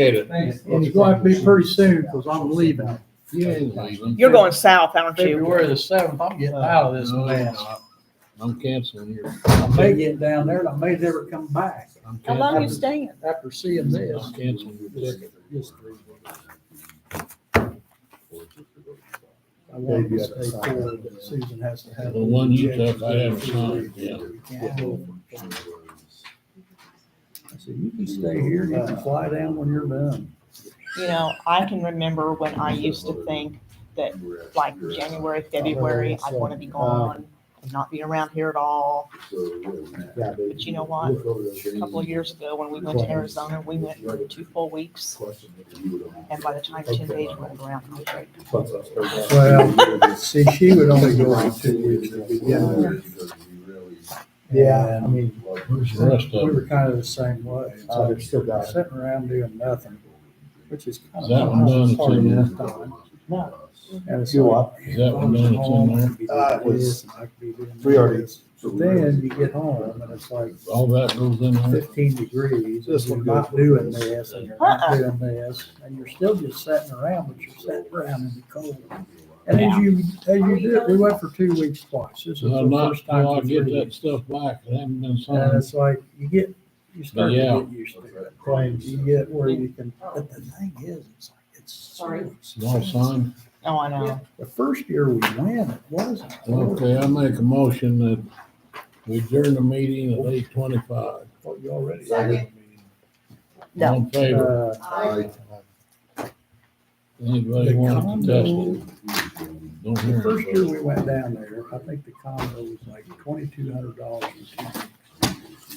Appreciate it. It's going to be pretty soon because I'm leaving. You ain't leaving. You're going south, aren't you? February the seventh, I'm getting out of this No, you're mess. not. Oh, I'm canceling your. Uh, I may get down there and I may never come back I'm How long canceling- you staying? after seeing this. I'm canceling your ticket. I want to stay forward, but Susan has to have. The one you took, I haven't signed, yeah. I said, you can stay here, you can fly down when you're done. You know, I can remember when I used to think like January, February, I'd want to be gone and not be around here at all. But you know what? A couple of years ago, when we went to Arizona, we went for two full weeks. And by the time ten days rolled around, I was like, Well, See, she would only go on two weeks to begin Yeah, I mean, Where's the rest we of it? were kind of the same way. It's Oh, like they're still got it. Sitting around doing nothing, which is kind Is of. that one done hard too? enough time. No. And it's You like, what? Is that one done? It's in there? Uh, it was- we already- But Then you get home and it's like All that goes in there? fifteen degrees, This and you're one not goes- doing this, and you're not Uh-uh. doing this, and you're still just sitting around, but you're sitting around in the cold. And as you, as you do, it, we went for two weeks twice, this is Well, the not first time till I for get three that years. stuff back. It hasn't been And signed. it's like, you get, you start to yeah. get used to it, claims, you get where you can, but the thing is, it's like, it's. Sorry. It's all signed. oh, I know. The first year we went, it wasn't. Okay, I make a motion that we adjourn the meeting at eight twenty-five. What you already. No. All in favor? Uh, Anybody The want to condo- contest it? Don't The Hmm. hear first it. year we went down there, I think the condo was like twenty-two hundred dollars.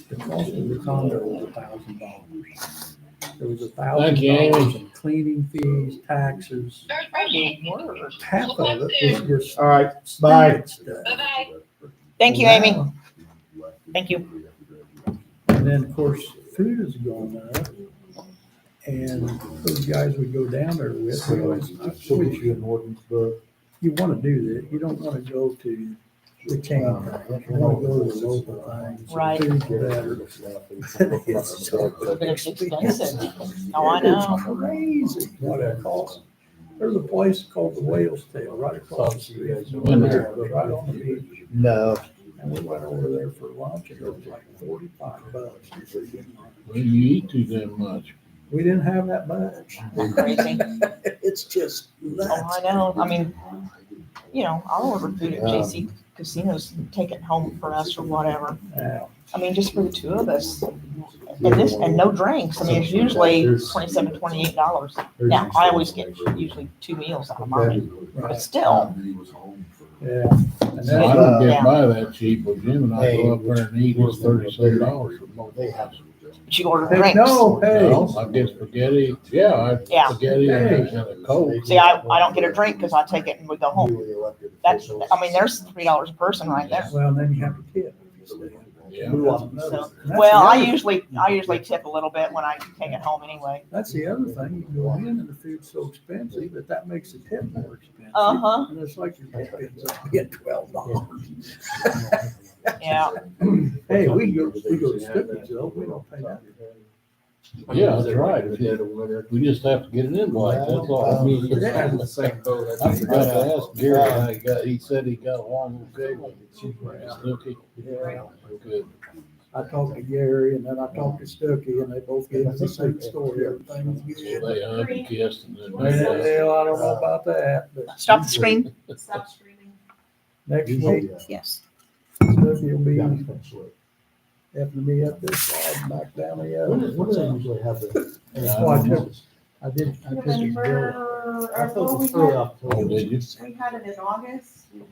The cost of the condo was a thousand dollars. There was a Thank thousand you, Amy. dollars in cleaning fees, taxes. Half of it was just. All right, bye. standard stuff. Bye-bye. Thank you, Amy. Thank you. And then, of course, food is going up. And those guys we go down there with, we always, you an ordinance book. wanna do that, you don't wanna go to the chain thing, you wanna go to the local thing. so Right. Food's better. It's so- But it's expensive. Oh, I know. It's Crazy what it costs. There's a place called the Whale's Tail right across the street. from When? there, Mm-hmm. Right on the beach. No. And we went over there for lunch and it was like forty-five bucks. Well, you eat too damn much. We didn't have that much. Crazy. It's just Oh, I nuts. know. I mean, you know, I'll order food at JC Casinos and take it home for us or whatever. Yeah. I mean, just for the two of us. And this, and no drinks. I mean, it's usually twenty-seven, twenty-eight dollars. Now, I always get usually two meals out of mine, but still, Yeah. And uh, Well, I then, don't Yeah. get by that cheap, but Jim and I go up there and eat for thirty-seven dollars. but you order Hey, drinks. no, No, hey, I get spaghetti, yeah, I Yeah. get spaghetti and and a coke. See, I, I don't get a drink because I take it and we go home. That's, That's, I mean, there's three dollars a person right there. well, and then you have to tip. Yeah. We want to know. That's Well, the I other- usually, I usually tip a little bit when I take it home anyway. That's the other thing, you go in and the food's so expensive that that makes the tip more expensive. Uh-huh. And it's like your tip ends up being twelve dollars. Yeah, Hey, we go, we go to Steubenville, we don't pay that. Yeah, that's right. We just have to get an invite, that's all. Yeah. I forgot to ask Gary, how he got, he said he got along okay with Snooki. Yeah. Good. I talked to Gary and then I talked to Stuckey and they both gave us the same story, everything's good. Well, They hugged and kissed and then. they Well, left. hell, I don't know about that, but stop the screen. Stop streaming. next week, Yes. Stuckey will be effing me up this side, back down the When is, when do they other. usually have the? That's why I took, I did, I took. his bill. November, I or thought it what was we early had, Oh, October. did you? we had it in August. We